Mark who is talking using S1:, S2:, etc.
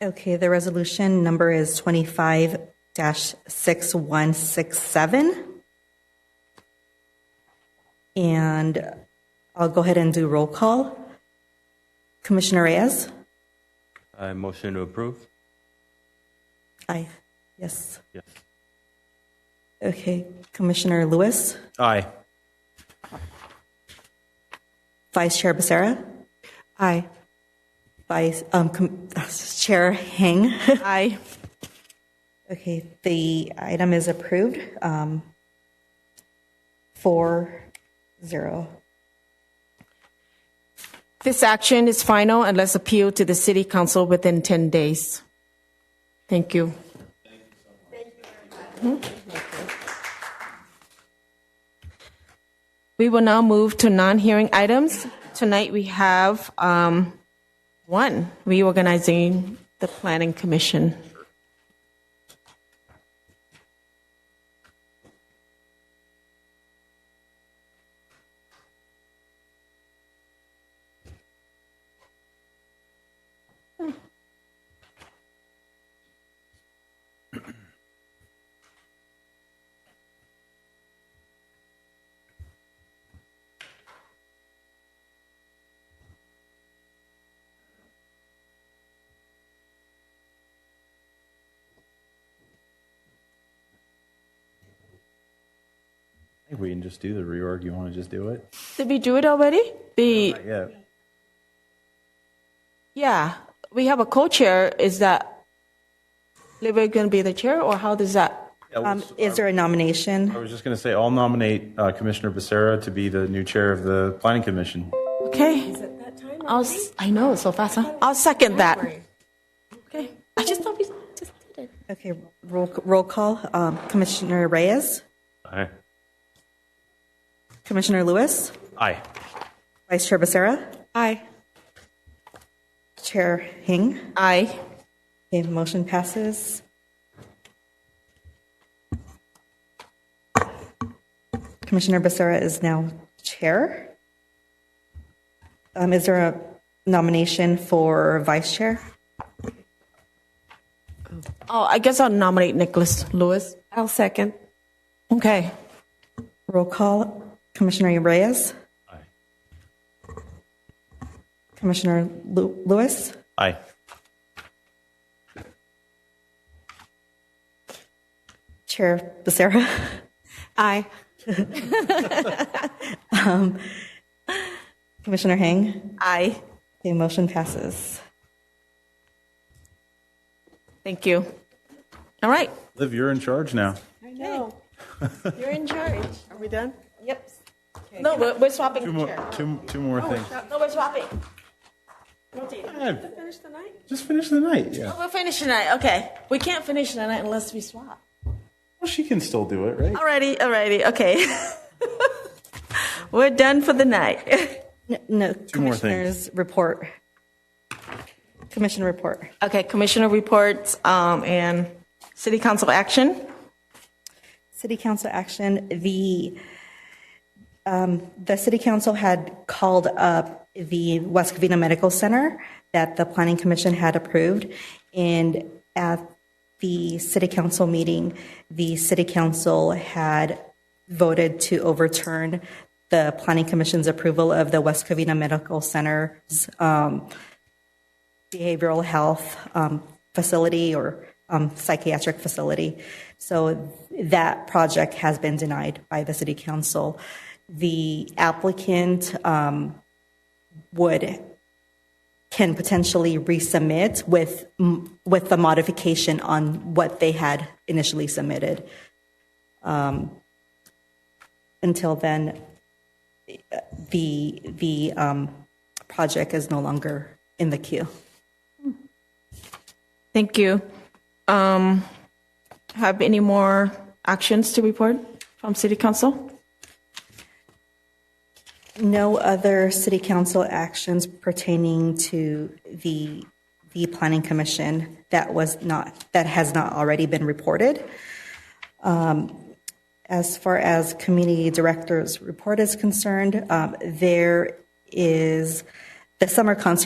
S1: Okay, the resolution number is 25-6167. And I'll go ahead and do roll call. Commissioner Reyes?
S2: I Uh, motion to approve.
S1: Aye. Yes.
S2: Yes.
S1: Okay, Commissioner Lewis?
S2: Aye.
S1: Vice Chair Becerra? Aye. Vice, um, Com- Chair Heng?
S3: Aye.
S1: Okay, the item is approved. um, Four, zero.
S3: This action is final unless appealed to the City Council within 10 days. Thank you. We will now move to non-hearing items. Tonight, we have um, one, reorganizing the Planning Commission.
S4: I think we can just do the reorg. You want to just do it?
S3: Did we do it already? The,
S4: Yeah.
S3: yeah, we have a co-chair. Is that, Libby going to be the chair, or how does that?
S1: Um, Is there a nomination?
S4: I was just going to say, I'll nominate uh, Commissioner Becerra to be the new chair of the Planning Commission.
S3: Okay. Is it that time? I'll, s- I know, it's so fast, huh? I'll second that. Okay. I just thought we just did it.
S1: Okay, roll, roll call. um, Commissioner Reyes?
S2: Aye.
S1: Commissioner Lewis?
S2: Aye.
S1: Vice Chair Becerra?
S3: Aye.
S1: Chair Hing?
S3: Aye.
S1: Okay, motion passes. Commissioner Becerra is now chair. Um, Is there a nomination for vice chair?
S3: Oh, I guess I'll nominate Nicholas Lewis.
S5: I'll second.
S3: Okay.
S1: Roll call. Commissioner Reyes?
S2: Aye.
S1: Commissioner Lu- Lewis?
S2: Aye.
S1: Chair Becerra?
S5: Aye.
S1: Commissioner Hang?
S3: Aye.
S1: Okay, motion passes.
S3: Thank you. All right.
S4: Liv, you're in charge now.
S5: I know.
S3: You're in charge.
S5: Are we done?
S3: Yep. No, we're, we're swapping
S4: Two
S3: the
S4: more,
S3: chair.
S4: two, two more things.
S3: No, we're swapping.
S4: Yeah,
S5: Finish the night?
S4: just finish the night. Yeah.
S3: Oh, we're finishing tonight. Okay. We can't finish tonight unless we swap.
S4: Well, she can still do it, right?
S3: Alrighty, alrighty, okay. We're done for the night.
S1: N- No,
S4: more things.
S1: commissioners report. Commission report.
S3: Okay, commissioner reports, um, and city council action.
S1: City council action, the, um, the city council had called up the West Covina Medical Center that the planning commission had approved. And at the city council meeting, the city council had voted to overturn the planning commission's approval of the West Covina Medical Center's, um, behavioral health um, facility or um, psychiatric facility. So that project has been denied by the city council. The applicant um, would can potentially resubmit with with the modification on what they had initially submitted. Um, until then, the the um, project is no longer in the queue.
S3: Thank you. Um, have any more actions to report from city council?
S1: No other city council actions pertaining to the, the planning commission that was not, that has not already been reported. Um, As far as community director's report is concerned, um, there is, the summer concert